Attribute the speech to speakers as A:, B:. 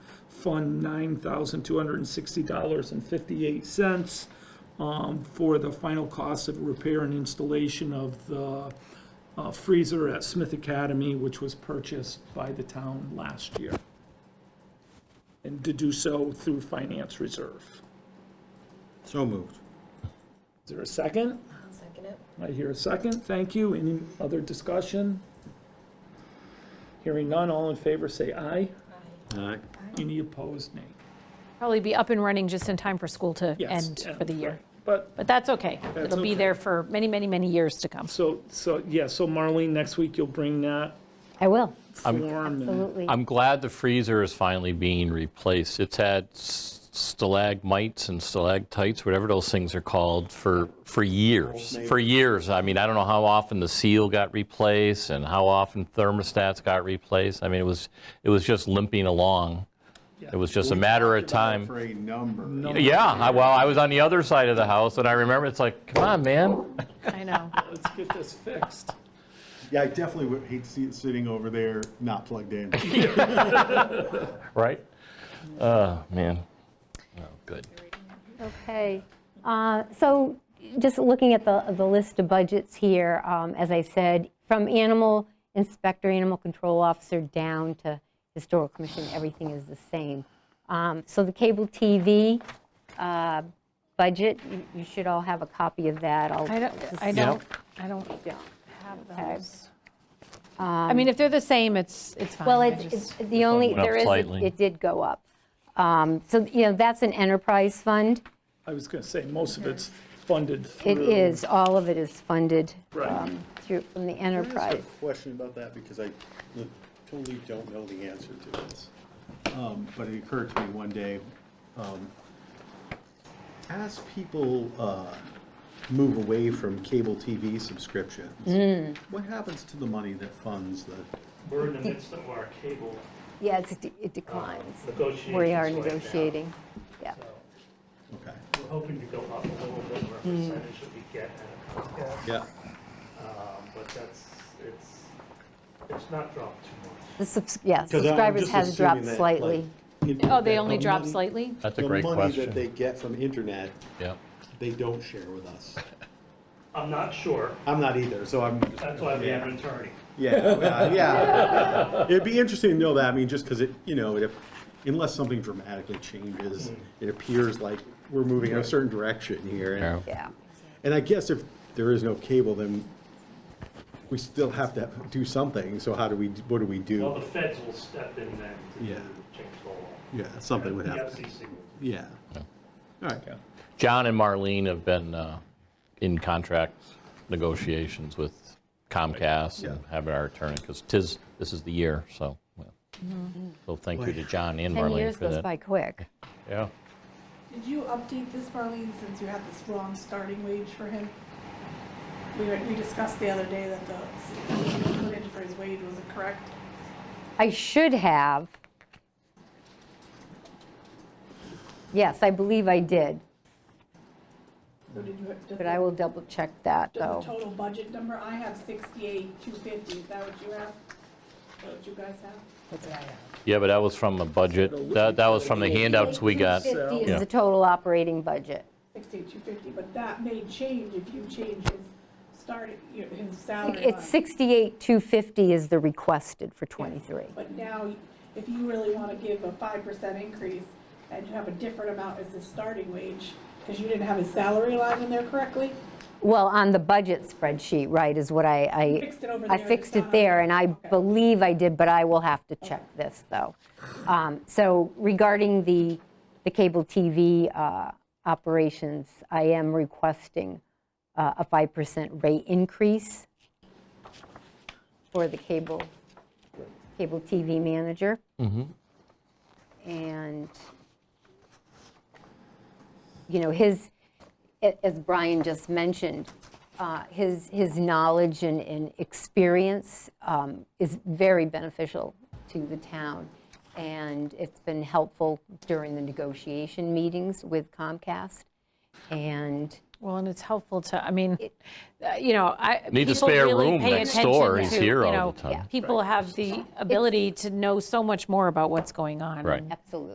A: fund nine thousand two hundred and sixty dollars and fifty-eight cents um, for the final cost of repair and installation of the uh, freezer at Smith Academy, which was purchased by the town last year. And to do so through finance reserve.
B: So moved.
A: Is there a second?
C: I'll second it.
A: I hear a second. Thank you. Any other discussion? Hearing none, all in favor say aye.
C: Aye.
B: Aye.
A: Any opposed, nay.
D: Probably be up and running just in time for school to
A: Yes,
D: end
A: yeah,
D: for the year.
A: right. But
D: But that's okay.
A: That's
D: It'll be
A: okay.
D: there for many, many, many years to come.
A: So, so, yeah, so Marlene, next week you'll bring that
E: I will,
A: form and
E: absolutely.
F: I'm glad the freezer is finally being replaced. It's had s- stalagmites and stalactites, whatever those things are called, for, for years, for years. I mean, I don't know how often the seal got replaced and how often thermostats got replaced. I mean, it was, it was just limping along. It was just a matter of time.
B: For a number.
F: Yeah, I- well, I was on the other side of the house and I remember, it's like, come on, man.
D: I know.
A: let's get this fixed.
B: Yeah, I definitely would hate to see it sitting over there, not plugged in.
F: Right? Oh, man. Oh, good.
E: Okay, Uh, so just looking at the, the list of budgets here, um, as I said, from animal inspector, animal control officer down to historical commission, everything is the same. Um, So the cable TV uh, budget, you- you should all have a copy of that. I'll
D: I don't,
E: just-
D: I
F: Yeah.
D: don't, I don't have
E: Okay. Um,
D: those. I mean, if they're the same, it's, it's fine.
E: Well,
D: I
E: it's,
D: just-
E: it's the only,
F: went up
E: there is,
F: slightly.
E: it did go up. Um, So, you know, that's an enterprise fund.
A: I was gonna say, most of it's funded
E: It
A: through.
E: is, all of it is funded
A: Right.
E: um, through, from the
G: Can I ask
E: enterprise.
G: a Question about that, because I totally don't know the answer to this.
B: Um, But it occurred to me one day, um, as people uh, move away from cable TV
E: Hmm.
B: subscriptions, what happens to the money that funds the,
H: We're in the midst of our cable
E: Yeah, it's, it
H: uh,
E: declines.
H: negotiations.
E: We are
H: right now.
E: negotiating, yeah.
H: So
B: okay,
H: We're hoping to go up a little bit, our
E: Hmm.
H: percentage that we get at Comcast,
B: yeah,
H: um, but that's, it's, it's not dropped too much.
E: The subs, yeah,
G: 'Cause I'm
E: subscribers
G: just
E: has dropped
G: assuming that,
E: slightly.
G: like, in-
D: Oh,
G: that
D: they only
G: the
D: drop
G: money-
F: Mm-hmm.
D: slightly?
F: That's a great
G: The money that they
F: question.
G: get from internet,
F: Yep.
G: they don't share with us.
H: I'm not sure,
G: I'm not either, so I'm,
H: that's why we have an attorney.
B: yeah, well, yeah. It'd be interesting to know that, I mean, just because it, you know, it- unless something dramatically changes,
G: Hmm.
B: it appears like we're moving in a certain direction here. and-
F: Yeah.
E: Yeah,
B: And I guess if there is no cable, then we still have to do something, so how do we, what do we
H: Well,
B: do?
H: the feds will step in then to
B: Yeah.
H: change the law.
B: Yeah, something would
H: The
B: happen,
H: FCC will.
B: yeah. All right,
F: John and Marlene have been uh, in contract negotiations with Comcast and
B: Yeah.
F: having our attorney, because tis, this is the year, so. well. So thank you to John and
E: 10
F: Marlene
E: years
F: for
E: goes
F: that.
E: by quick.
F: Yeah.
I: Did you update this, Marlene, since you had this wrong starting wage for him? We, were- we discussed the other day that the, what he put in for his wage wasn't correct.
E: I should have. Yes, I believe I did,
I: So did you, does
E: but I
I: the,
E: will double check that
I: does the
E: though.
I: total budget number, I have sixty-eight, two fifty, is that what you have? Is that What you guys have?
F: Yeah, but that was from the budget, that, that was from the handouts we got.
E: 50
F: Yeah.
E: is the total operating budget.
I: Sixty-eight, two fifty, but that may change if you change his starting, your- his salary line.
E: It's 68,250 is the requested for 23.
I: But now, if you really want to give a five percent increase and you have a different amount as the starting wage, because you didn't have his salary line in there correctly,
E: Well, on the budget spreadsheet, right, is what I, I.
I: fixed it over
E: I
I: there,
E: fixed
I: it's
E: it
I: not-
E: there, and I
I: Okay.
E: believe I did, but I will have to check this, though. Um, So regarding the, the cable TV uh, operations, I am requesting uh, a 5% rate increase for the cable, cable TV manager. And, you know, his, a- as Brian just mentioned, uh, his, his knowledge and, and experience um, is very beneficial to the town. And it's been helpful during the negotiation meetings with Comcast. And
D: Well, and it's helpful to, I mean, uh, you know, I.
F: Need a
D: people
F: spare
D: really
F: room
D: pay
F: next
D: attention
F: door. He's
D: to,
F: here
D: you
F: all
D: know,
F: the time. Yeah.
D: People have the ability to know so much more about what's going on.
F: Right.
E: absolutely.